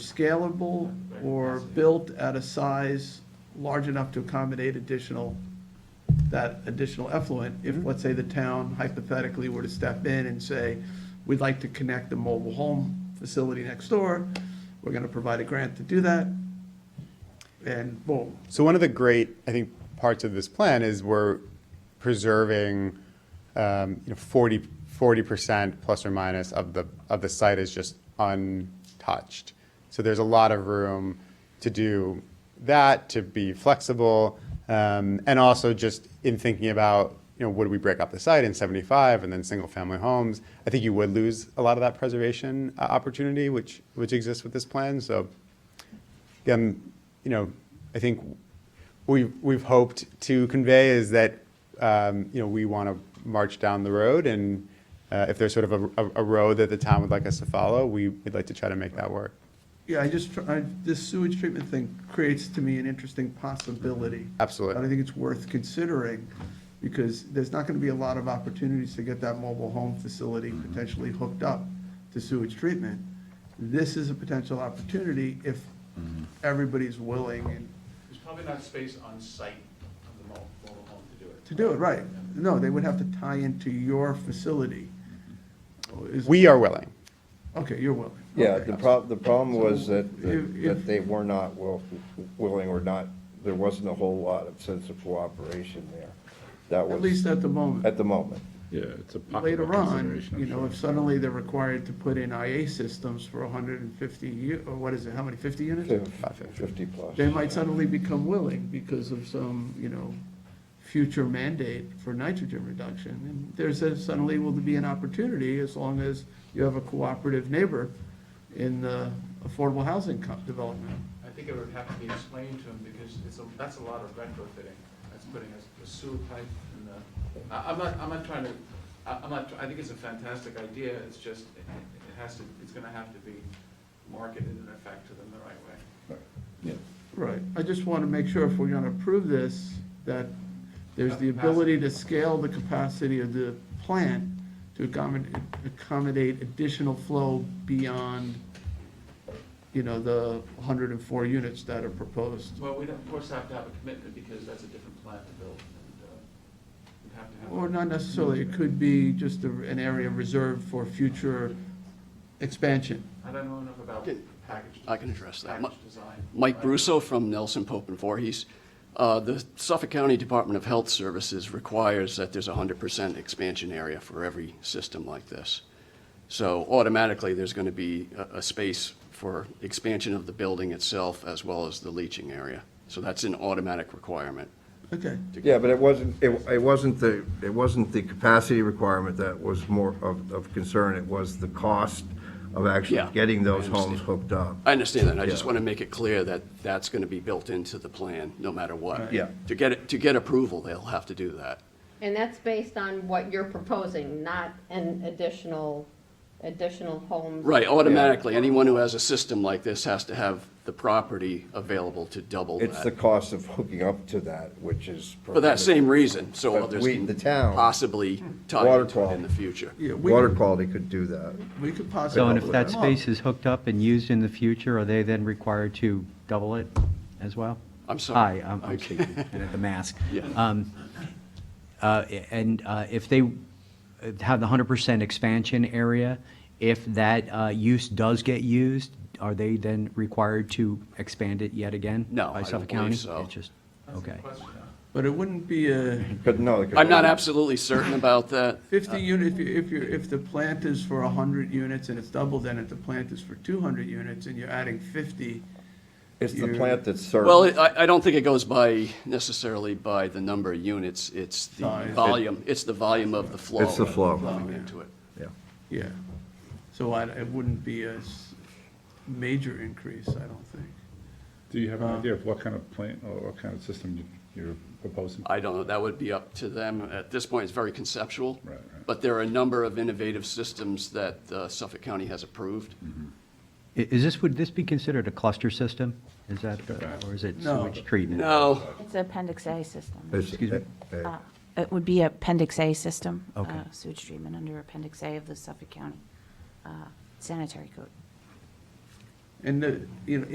scalable or built at a size large enough to accommodate additional, that additional effluent, if, let's say, the town hypothetically were to step in and say, we'd like to connect the mobile home facility next door, we're gonna provide a grant to do that, and boom, So one of the great, I think, parts of this plan is we're preserving, um, you know, 40 percent plus or minus of the of the site is just untouched. So there's a lot of room to do that, to be flexible, um, and also just in thinking about, you know, would we break up the site in 75 and then single family homes? I think you would lose a lot of that preservation uh, opportunity, which which exists with this plan. So um, you know, I think we've, we've hoped to convey is that, um, you know, we want to march down the road and uh, if there's sort of a, a- a road that the town would like us to follow, we, we'd like to try to make that work. yeah, I just, tr- I, this sewage treatment thing creates to me an interesting possibility. And I Absolutely. think it's worth considering, because there's not gonna be a lot of opportunities to get that mobile home facility potentially hooked up to sewage treatment. This is a potential opportunity if everybody's willing and There's probably not space on site of the mo- mobile home to do it. to do it, right? No, they would have to tie into your facility. Is- We are willing. Okay, you're willing. Yeah, Okay. the prob, the problem was that, If- that if- they were not will, willing or not, there wasn't a whole lot of sense of cooperation there. That At was, least at the moment. at the moment. Yeah, it's a popular Later on, consideration. I'm you know, sure. if suddenly they're required to put in IA systems for hundred and fifty, u- or what is it, how many, fifty units? Fifty plus. they might suddenly become willing because of some, you know, future mandate for nitrogen reduction. And there's a, suddenly will be an opportunity as long as you have a cooperative neighbor in the affordable housing co- development. I think it would have to be explained to them because it's, a that's a lot of retrofitting. That's putting a a sewer pipe in the, I- I'm not, I'm not trying to, I- I'm not, I think it's a fantastic idea. It's just, it it has to, it's gonna have to be marketed in effect to them the right way. Right. I just want to make sure if we're going to approve this, that there's the ability to scale the capacity of the plant to accommodate, accommodate additional flow beyond, you know, the 104 units that are proposed. Well, we'd of course have to have a commitment because that's a different plan to build and uh, we'd have to have. Or not necessarily, it could be just a- an area reserved for future expansion. I don't know enough about Okay. package. I can address that. Package design. Mike I- Brusso from Nelson Pope and Voorhees. Uh, The Suffolk County Department of Health Services requires that there's 100% expansion area for every system like this. So automatically, there's going to be a, a space for expansion of the building itself as well as the leaching area. So that's an automatic requirement. Okay, Yeah, but it wasn't, it, it wasn't the, it wasn't the capacity requirement that was more of, of concern. It was the cost of actually Yeah, getting those I homes understand. hooked up. I understand that. I just Yeah. want to make it clear that that's going to be built into the plan, no matter what. Yeah. To get, it- to get approval, they'll have to do that. And that's based on what you're proposing, not an additional, additional home. Right, automatically, anyone who has a system like this has to have the property available to double It's the that. cost of hooking up to that, which is. For that same reason, so But others we- can the town- possibly tie Water into it in quality. the future. yeah, we, Water quality could do that. we could possibly. So, and if open that them up. space is hooked up and used in the future, are they then required to double it as well? I'm sorry. Hi, I'm- I'm Okay. speaking, at the mask. Yeah. Um, uh, And uh, if they uh, have the 100% expansion area, if that uh, use does get used, are they then required to expand it yet again? No, I By don't Suffolk believe County? so. It's just, That's the okay. question. But it wouldn't be a Could, no. it could- I'm not absolutely certain about that. 50 unit, if you, if you, if the plant is for 100 units and it's doubled, then if the plant is for 200 units and you're adding 50, It's the plant that serves. Well, it- I, I don't think it goes by, necessarily by the number of units, it's the Size. volume, it's the volume of the flow. It's the flow. Coming into it. Yeah. yeah. So I, it wouldn't be a s- major increase, I don't think. Do you uh, have an idea of what kind of plant or what kind of system you- you're proposing? I don't know, that would be up to them. At this point, it's very conceptual. Right, right. But there are a number of innovative systems that uh, Suffolk County has approved. Mm-hmm. I- Is this, would this be considered a cluster system? Is that, uh, or is it No. sewage treatment? No, It's appendix A system. It's- Excuse me? eh, eh, Uh, It would be appendix A system. Okay. uh, Sewage treatment under appendix A of the Suffolk County uh, sanitary code. And the, you know,